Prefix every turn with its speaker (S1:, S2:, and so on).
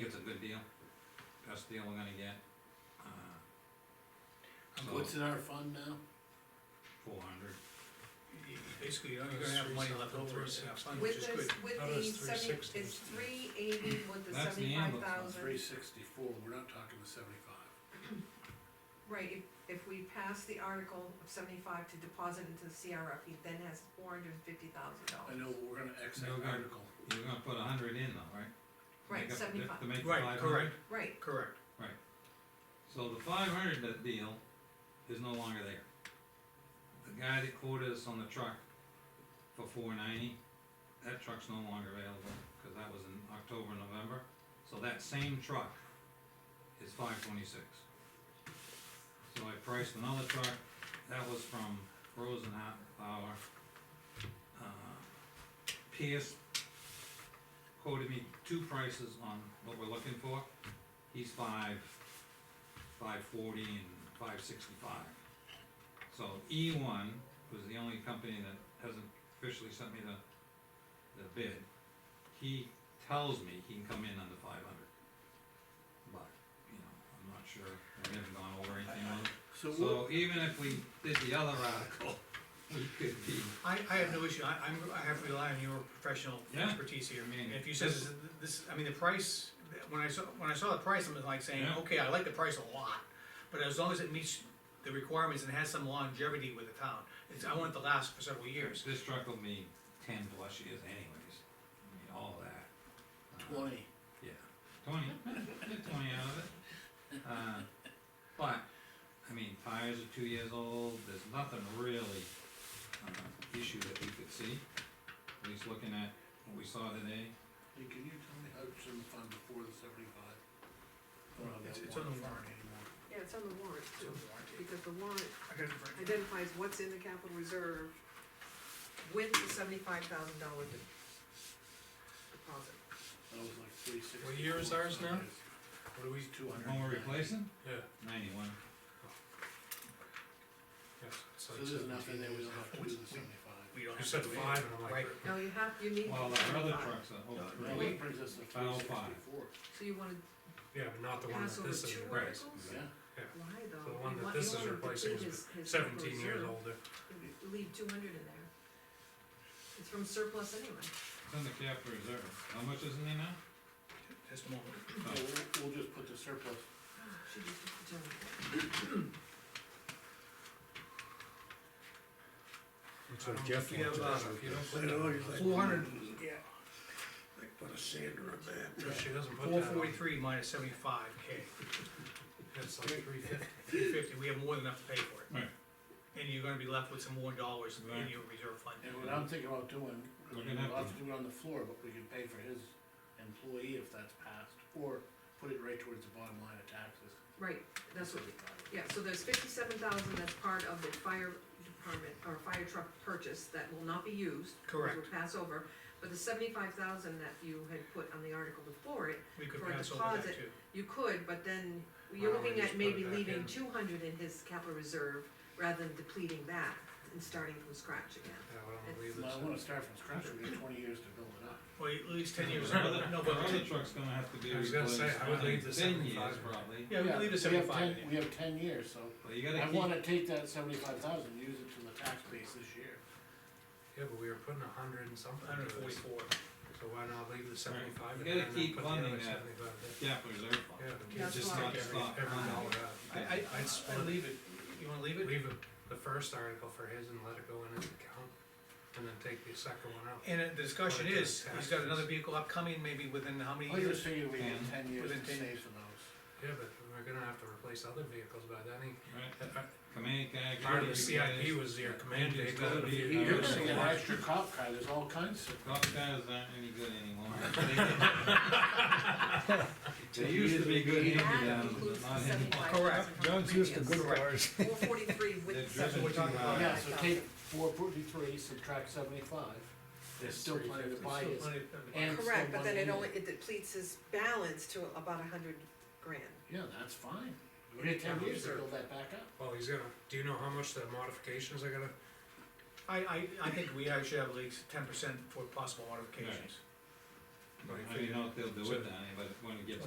S1: a good deal, best deal we're gonna get. uh,
S2: Um, What's in our fund now?
S1: Four hundred,
S3: You- you Basically, you're gonna have money left over in that fund, which
S4: With
S3: is
S4: this,
S3: good.
S4: with
S5: How
S4: the
S5: does
S4: seventy,
S5: 360?
S4: it's three eighty with the
S1: That's the
S4: seventy-five
S1: ambulance one,
S4: thousand.
S2: Three sixty-four, we're not talking the seventy-five.
S4: Right, if, if we pass the article of seventy-five to deposit into the CRF, he then has four hundred and fifty thousand
S2: I
S4: dollars.
S2: know, but we're gonna X that
S1: No, good.
S2: article.
S1: you're gonna put a hundred in though, right?
S4: Right,
S1: Make up the diff-
S4: 75.
S1: To make it
S3: Right,
S1: five hundred?
S3: correct,
S4: Right,
S3: correct.
S1: So the five hundred deal is no longer there. The guy that quoted us on the truck for four ninety, that truck's no longer available, cause that was in October, November. So that same truck is five twenty-six. So I priced another truck, that was from Frozen Hot Power. Uh, Pierce quoted me two prices on what we're looking for. He's five five forty and five sixty-five. So E one was the only company that hasn't officially sent me the, the bid. He tells me he can come in under five hundred. But, you know, I'm not sure, we haven't gone over anything on it.
S2: So we'll,
S1: So even if we did the other article, we could be,
S3: I, I have no issue, I, I'm, I have to rely on your professional
S1: Yeah.
S3: expertise here.
S1: I mean,
S3: And if you said
S1: this-
S3: this- this, I mean, the price, when I saw, when I saw the price, I'm like saying,
S1: Yeah.
S3: okay, I like the price a lot. But as long as it meets the requirements and has some longevity with the town, it's, I want it to last for several years.
S1: this truck will be ten plus years anyways, I mean, all that. Uh,
S2: twenty,
S1: Yeah, twenty, get twenty out of it. Uh, But, I mean, tires are two years old, there's nothing really, uh, issue that we could see. At least looking at what we saw today,
S2: hey, can you tell me how it's in the fund before the seventy-five?
S3: It's- it's on the warrant.
S4: yeah, it's on the warrant
S3: It's
S4: too,
S3: a warranty.
S4: because the warrant
S3: I got it right.
S4: identifies what's in the capital reserve with the seventy-five thousand dollar deposit.
S2: That was like three sixty.
S5: What year is ours now?
S3: What do we,
S2: Two hundred.
S1: when we're replacing,
S5: Yeah,
S1: ninety-one,
S5: yes. it's
S2: So
S5: like
S2: there's nothing there, we don't have to do the
S3: We-
S2: seventy-five.
S3: we don't
S5: You
S3: have
S5: said
S3: to wait.
S5: five, and I'm like,
S3: Right.
S4: No, you have, you need.
S1: while our other trucks are oh, over
S2: Now,
S1: three.
S2: that brings us to three
S1: Final five.
S2: sixty-four,
S4: So you wanna
S5: yeah, but not the one
S4: pass
S5: that
S4: over
S5: this is,
S4: two
S1: right.
S4: articles?
S2: yeah?
S4: Why
S5: the
S4: though?
S5: one
S4: You want- you
S5: that this is
S4: want him to
S5: replacing
S4: keep
S5: is
S4: his- his
S5: seventeen years
S4: reserve.
S5: older.
S4: leave two hundred in there. It's from surplus anyway.
S1: It's in the capital reserve, how much is in there now?
S3: Just a moment.
S2: So we'll, we'll just put the surplus,
S4: She just put the general.
S5: That's
S3: what Jeff
S5: You have, uh,
S3: wants.
S5: if you don't put
S6: I know,
S5: that,
S6: he's oh, like.
S3: Four hundred.
S6: Yeah. Like put a sander in there.
S5: if she doesn't put
S3: Four
S5: that on,
S3: forty-three minus seventy-five K,
S5: it's like three fifty.
S3: three fifty, we have more than enough to pay for it.
S1: Right.
S3: And you're gonna be left with some more dollars in
S1: Right.
S3: your reserve fund.
S2: and what I'm thinking about doing,
S1: We're
S2: we'll
S1: gonna have
S2: have
S1: to-
S2: to do it on the floor, but we can pay for his employee if that's passed, or put it right towards the bottom line of taxes.
S4: Right, that's what,
S2: $75.
S4: yeah, so there's fifty-seven thousand that's part of the fire department, or fire truck purchase that will not be used. which
S3: Correct,
S4: Will pass over, but the seventy-five thousand that you had put on the article before it,
S3: we could
S4: for a
S3: pass over that
S4: deposit.
S3: too.
S4: you could, but then
S5: Why
S4: you're
S5: don't we
S4: looking
S5: just
S4: at
S5: put
S4: maybe
S5: it back
S4: leaving
S5: in?
S4: two hundred in his capital reserve rather than depleting that and starting from scratch again.
S5: Yeah, why don't we leave
S2: Well, uh, I
S5: this
S2: wanna start from scratch, we got twenty years to build it up.
S3: Well, at least ten years,
S1: Our other,
S3: no,
S1: our other
S3: but,
S1: truck's gonna have to be
S5: I was gonna
S1: replaced,
S5: say, I would leave
S1: in
S5: the
S1: ten years
S5: 75.
S1: probably,
S3: yeah, we leave the
S2: have
S3: seventy-five
S2: 10
S3: in there.
S2: We have ten years, so
S1: but you
S2: I
S1: gotta keep,
S2: wanna take that seventy-five thousand, use it to the tax base this year.
S5: Yeah, but we were putting a hundred and something
S3: Hundred
S5: into this,
S3: forty-four,
S5: so why not leave the seventy-five
S1: You gotta
S5: in there and then
S1: keep
S5: put the
S1: funding
S5: other
S1: that.
S5: seventy-five in?
S1: capital reserve fund.
S5: Yeah, but you
S4: That's
S5: just
S4: why-
S5: take every,
S1: Stop.
S5: every dollar out.
S3: I, I, I,
S5: I'd split
S3: I
S5: it.
S3: leave it, you wanna leave it?
S5: leave it, the first article for his and let it go in his account, and then take the second one out.
S3: And the discussion
S5: Put it to
S3: is, he's got
S5: taxes.
S3: another vehicle upcoming, maybe within how many
S2: I
S3: years?
S2: just figured we had
S1: And-
S2: ten years
S3: Within
S2: to
S3: 10
S2: save for those.
S5: Yeah, but we're gonna have to replace other vehicles by then, he, uh,
S1: Right,
S5: that- that-
S1: command guy.
S5: part of the
S1: guards,
S5: CIP was your
S1: Yeah.
S5: command
S1: Engines
S5: vehicle.
S1: gotta be-
S5: You-
S1: Yeah,
S2: You're
S5: you-
S2: gonna get an
S1: yeah.
S2: extra cop car, there's all kinds of.
S1: Golf guys aren't any good anymore. They used to be good
S4: That
S1: hand-me-downs,
S4: includes
S1: but
S4: the
S1: not anymore.
S4: seventy-five thousand
S3: Correct.
S4: from the previous.
S6: cars.
S4: Four forty-three
S1: They're
S4: with the
S1: driven uh,
S3: we're
S1: too
S3: talking about.
S1: hard.
S2: Yeah, so take four forty-three, subtract seventy-five, there's still plenty to buy
S3: Still
S2: his,
S3: plenty of-
S2: and still
S4: Correct, but then
S2: money
S4: it
S2: in
S4: only,
S2: it.
S4: it depletes his balance to about a hundred grand.
S2: Yeah, that's fine, we had ten years to build that back up.
S5: Well, he's gonna, do you know how much the modifications are gonna,
S3: I, I, I think we actually have at least ten percent for possible modifications.
S1: But How do you know if they'll do it, Danny, but when it gets